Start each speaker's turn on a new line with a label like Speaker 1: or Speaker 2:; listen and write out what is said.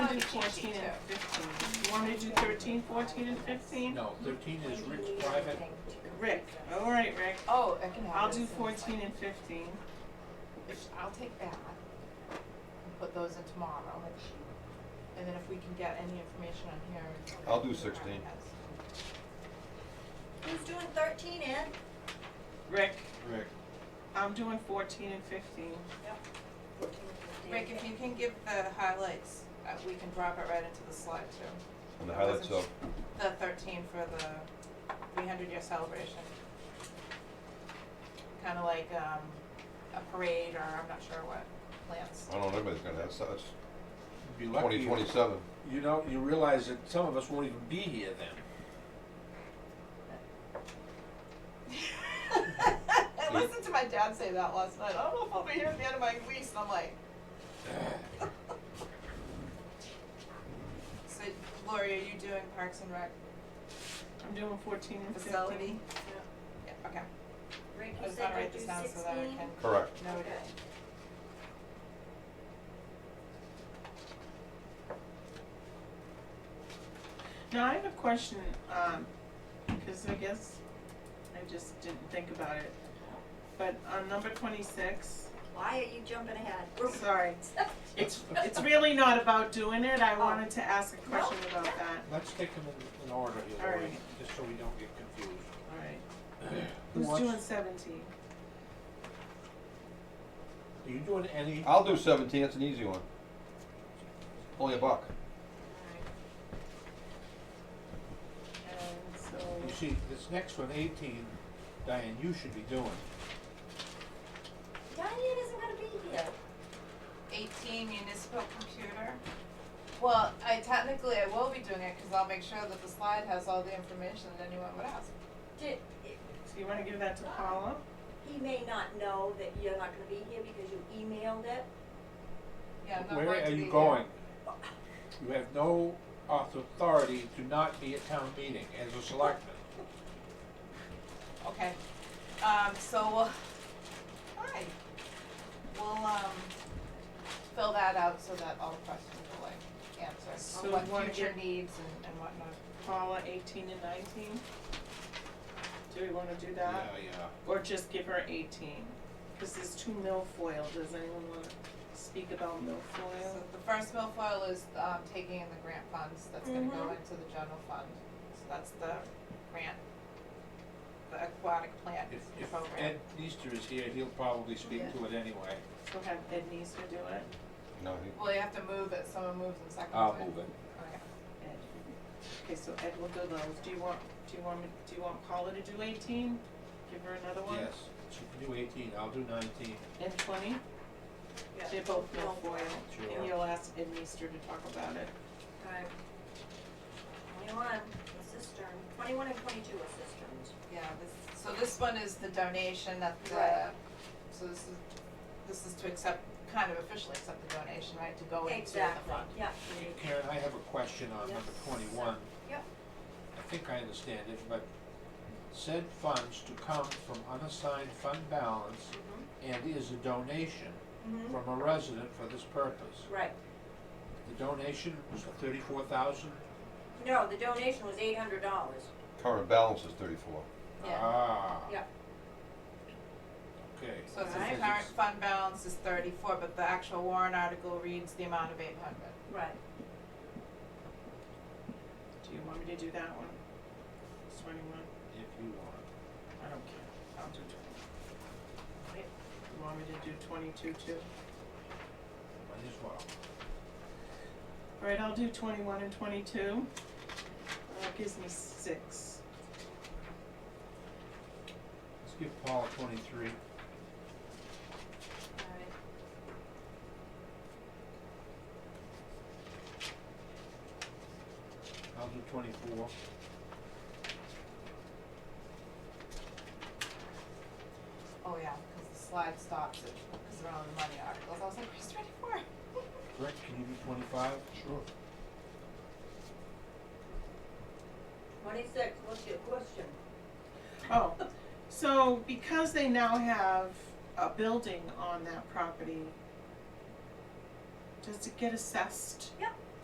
Speaker 1: 14 and 15. You want me to do 13, 14, and 15?
Speaker 2: No, thirteen is Rick's private,
Speaker 1: Rick, all right, Rick.
Speaker 3: Oh, I can have
Speaker 1: I'll
Speaker 3: this
Speaker 1: do
Speaker 3: in a
Speaker 1: 14
Speaker 3: second.
Speaker 1: and 15.
Speaker 3: I'll take that and put those in tomorrow. And then if we can get any information on here.
Speaker 4: I'll do 16.
Speaker 5: Who's doing thirteen, Ed?
Speaker 1: Rick,
Speaker 4: Rick.
Speaker 1: I'm doing 14 and 15.
Speaker 3: Rick, if you can give the highlights, uh, we can drop it right into the slide too.
Speaker 4: And the highlights of,
Speaker 3: The thirteen for the three hundred year celebration. Kinda like, um, a parade or I'm not sure what plans.
Speaker 4: I don't know, everybody's gonna have, that's
Speaker 2: be lucky.
Speaker 4: twenty twenty-seven.
Speaker 2: You know, you realize that some of us won't even be here then.
Speaker 3: I listened to my dad say that last night. I don't know if I'll be here at the end of my lease. And I'm like. so, Lori, are you doing Parks and Rec
Speaker 1: I'm doing 14 and 15.
Speaker 3: facility? Yeah. okay.
Speaker 5: Rick,
Speaker 3: I
Speaker 5: you
Speaker 3: just
Speaker 5: said
Speaker 3: gotta write
Speaker 5: to do
Speaker 3: this
Speaker 5: sixteen?
Speaker 3: down so that I can
Speaker 4: Correct.
Speaker 3: note it.
Speaker 1: Now, I have a question, um, because I guess I just didn't think about it. But on number 26,
Speaker 5: Why are you jumping ahead?
Speaker 1: sorry, it's, it's really not about doing it. I wanted to ask a question about that.
Speaker 2: Let's take them in, in order here,
Speaker 1: All
Speaker 2: Lori,
Speaker 1: right.
Speaker 2: just so we don't get confused.
Speaker 1: All right.
Speaker 2: Who
Speaker 1: Who's
Speaker 2: wants-
Speaker 1: doing 17?
Speaker 2: Are you doing any?
Speaker 4: I'll do seventeen, it's an easy one. Only a buck.
Speaker 1: And so,
Speaker 2: You see, this next one, eighteen, Diane, you should be doing.
Speaker 5: Diane isn't gonna be here.
Speaker 3: 18 municipal computer. Well, I technically I will be doing it because I'll make sure that the slide has all the information that anyone would ask.
Speaker 5: Did,
Speaker 1: so you wanna give that to Paula?
Speaker 5: he may not know that you're not gonna be here because you emailed it.
Speaker 3: Yeah, I'm not
Speaker 2: Where
Speaker 3: going
Speaker 2: are
Speaker 3: to be
Speaker 2: you
Speaker 3: here.
Speaker 2: going? You have no auth- authority to not be at town meeting as a selectman.
Speaker 3: Okay, um, so, we'll hi. We'll, um, fill that out so that all the questions are like
Speaker 1: So
Speaker 3: answered, on
Speaker 1: you wanna
Speaker 3: what future
Speaker 1: get-
Speaker 3: needs and, and whatnot.
Speaker 1: Paula eighteen and nineteen? Do we wanna do
Speaker 2: Yeah,
Speaker 1: that?
Speaker 2: yeah.
Speaker 1: Or just give her eighteen? Cause there's two milfoil, does anyone wanna speak about
Speaker 3: So
Speaker 1: milfoil?
Speaker 3: the first milfoil is, um, taking in the grant funds, that's gonna go
Speaker 1: Mm-hmm.
Speaker 5: Mhm.
Speaker 3: into the general fund, so that's the grant. The aquatic plant
Speaker 2: If, if
Speaker 3: program,
Speaker 2: Ed Easter is here, he'll probably speak to it anyway.
Speaker 1: So have Ed Neeser do it?
Speaker 4: No, he-
Speaker 3: well, you have to move it, someone moves and seconds it.
Speaker 2: I'll move it.
Speaker 3: Okay.
Speaker 1: Ed. Okay, so Ed will do those. Do you want, do you want me, do you want Paula to do eighteen? Give her another one?
Speaker 2: Yes, she can do eighteen, I'll do nineteen.
Speaker 1: And twenty?
Speaker 3: Yeah.
Speaker 1: They're both milfoil.
Speaker 2: Sure.
Speaker 1: And you'll ask Ed Neeser to talk about it.
Speaker 5: Alright. Twenty-one, a cistern, twenty-one and twenty-two are cisterns.
Speaker 3: Yeah, this, so this one is the donation that the,
Speaker 5: Right.
Speaker 3: so this is, this is to accept, kind of officially accept the donation, right, to go into the fund.
Speaker 5: Exactly, yeah.
Speaker 2: Karen, I have a question on number
Speaker 5: Yes.
Speaker 2: twenty-one.
Speaker 5: Yep.
Speaker 2: I think I understand it, but said funds to come from unassigned fund balance and is a donation
Speaker 5: Mm-hmm.
Speaker 2: from a resident for this purpose.
Speaker 5: Right.
Speaker 2: The donation was for thirty-four thousand?
Speaker 5: No, the donation was eight hundred dollars.
Speaker 4: current balance is thirty-four.
Speaker 3: Yeah.
Speaker 2: Ah.
Speaker 5: Yep.
Speaker 2: Okay.
Speaker 3: So it's
Speaker 2: Because
Speaker 3: the current fund balance is thirty-four, but the actual warrant article reads the amount of eight hundred.
Speaker 5: Right.
Speaker 1: Do you want me to do that one? Twenty-one?
Speaker 2: If you want.
Speaker 1: I don't care, I'll do twenty. You want me to do twenty-two too?
Speaker 2: Might as well.
Speaker 1: Alright, I'll do twenty-one and twenty-two. That gives me six.
Speaker 2: Let's give Paul twenty-three.
Speaker 3: Alright.
Speaker 2: I'll do twenty-four.
Speaker 3: Oh yeah, cause the slide stops it, cause they're on the money articles, I was like, where's twenty-four?
Speaker 2: Rick, can you do twenty-five? Sure.
Speaker 5: Twenty-six, what's your question?
Speaker 1: Oh, so because they now have a building on that property, does it get assessed?
Speaker 5: Yep.